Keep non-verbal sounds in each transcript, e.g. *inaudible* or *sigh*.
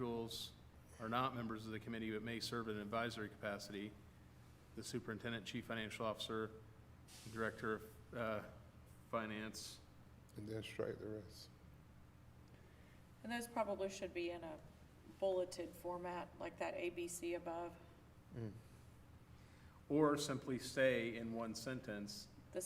individuals are not members of the committee but may serve in an advisory capacity. The superintendent, chief financial officer, director of uh, finance. and then strike the rest. And those probably should be in a bulleted format, like that ABC above. Mm. Or simply say in one sentence, The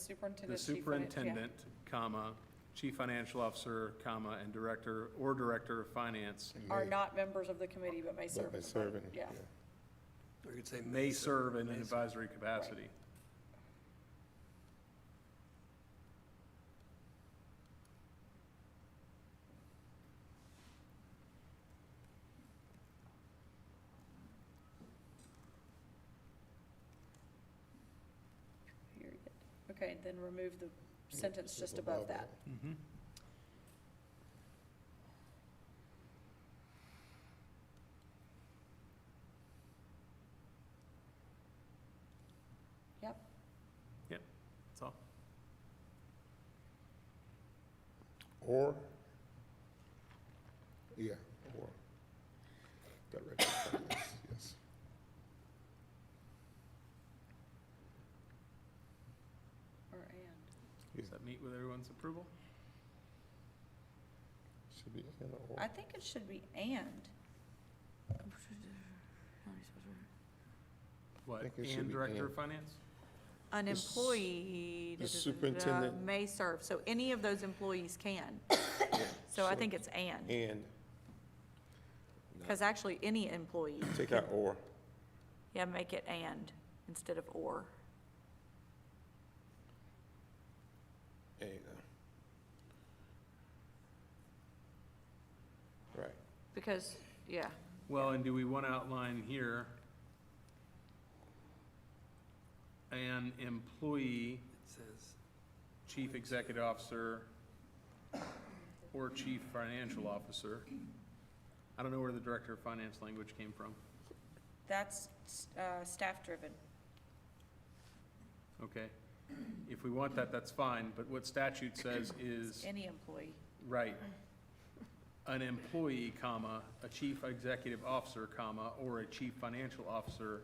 the superintendent. chief finan- yeah. superintendent, comma, chief financial officer, comma, and director, or director of finance And Are may- not members of the committee, but may But serve. by in the body. serving, Yeah, yeah. Or you could say may serve in an May advisory capacity. period. Okay, then remove the sentence just above that. Mm-hmm. Yep. Yep, that's all. Or, yeah, or. Director of Finance, yes. Or and. Does that meet with everyone's approval? Should be and or. I think it should be and. What, think it should and be director of and. finance? An The s- employee. da, da, da, da, the da, superintendent- May serve, so any of those employees *coughs* can. So I So- think it's and, And, because actually, any employee, take out or. yeah, make it and instead of or. And. uh. Right, Because, yeah, Well, and do we want to outline here an employee, It says, chief executive officer, or chief financial officer? I don't know where the director of finance language came from. That's, uh, staff driven. Okay. If we want that, that's fine, but what statute says is, Any employee. right, an employee, comma, a chief executive officer, comma, or a chief financial officer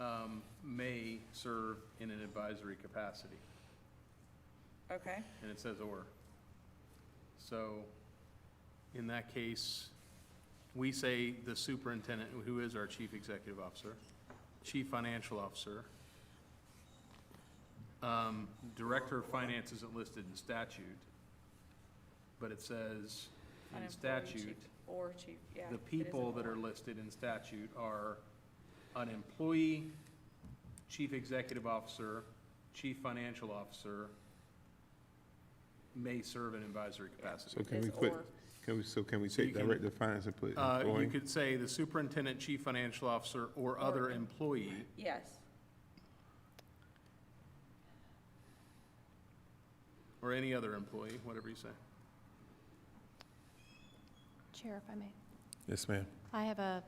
um, may serve in an advisory capacity, Okay, and it says or. So, in that case, we say the superintendent, who is our chief executive officer, chief financial officer. Um, Director of finance isn't listed in statute, but it says An in employee, statute, chief- or chief, yeah. it the is people that employee. are listed in statute are an employee, chief executive officer, chief financial officer, may serve in advisory capacity. so can Is we put, or. can we, so can we So you take can- Director of Finance and put Uh, employee? You could say the superintendent, chief financial officer, or other employee. Yes, Or any other employee, whatever you say. Chair, if I may. Yes, ma'am. I have a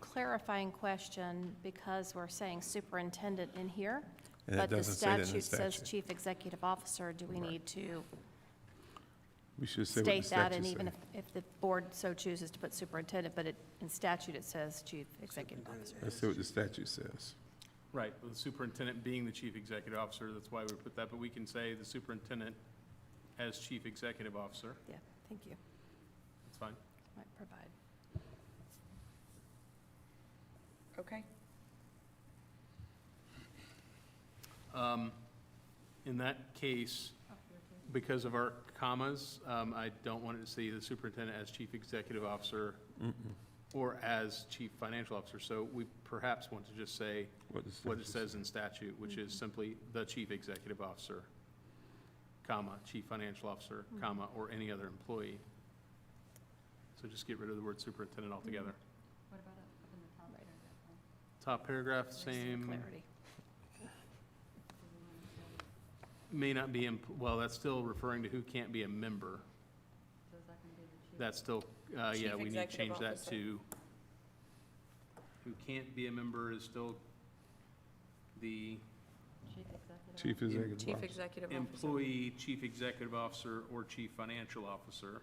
clarifying question because we're saying superintendent in here, And that but the doesn't say that in the statute says statute. chief executive officer. Do we need to We should say what the state that? statute And says. even if, if the board so chooses to put superintendent, but it, in statute it says chief executive officer. Let's see what the statute says. Right, the superintendent being the chief executive officer, that's why we put that, but we can say the superintendent as chief executive officer, Yeah, thank you. that's fine. Might provide. okay. Um, In that case, because of our commas, um, I don't want it to see the superintendent as chief executive officer or as chief financial officer, so we perhaps want to just say What the what it statute says in statute, which is simply the chief executive officer, comma, chief financial officer, comma, or any other employee. So just get rid of the word superintendent altogether. Mm-hmm. Top paragraph, same, Clarity. may not be, em- well, that's still referring to who can't be a member. That's still, uh, Chief yeah, we need to executive change that officer. to, who can't be a member is still the Chief Executive chief Officer. executive officer. employee, chief executive officer, or chief financial officer.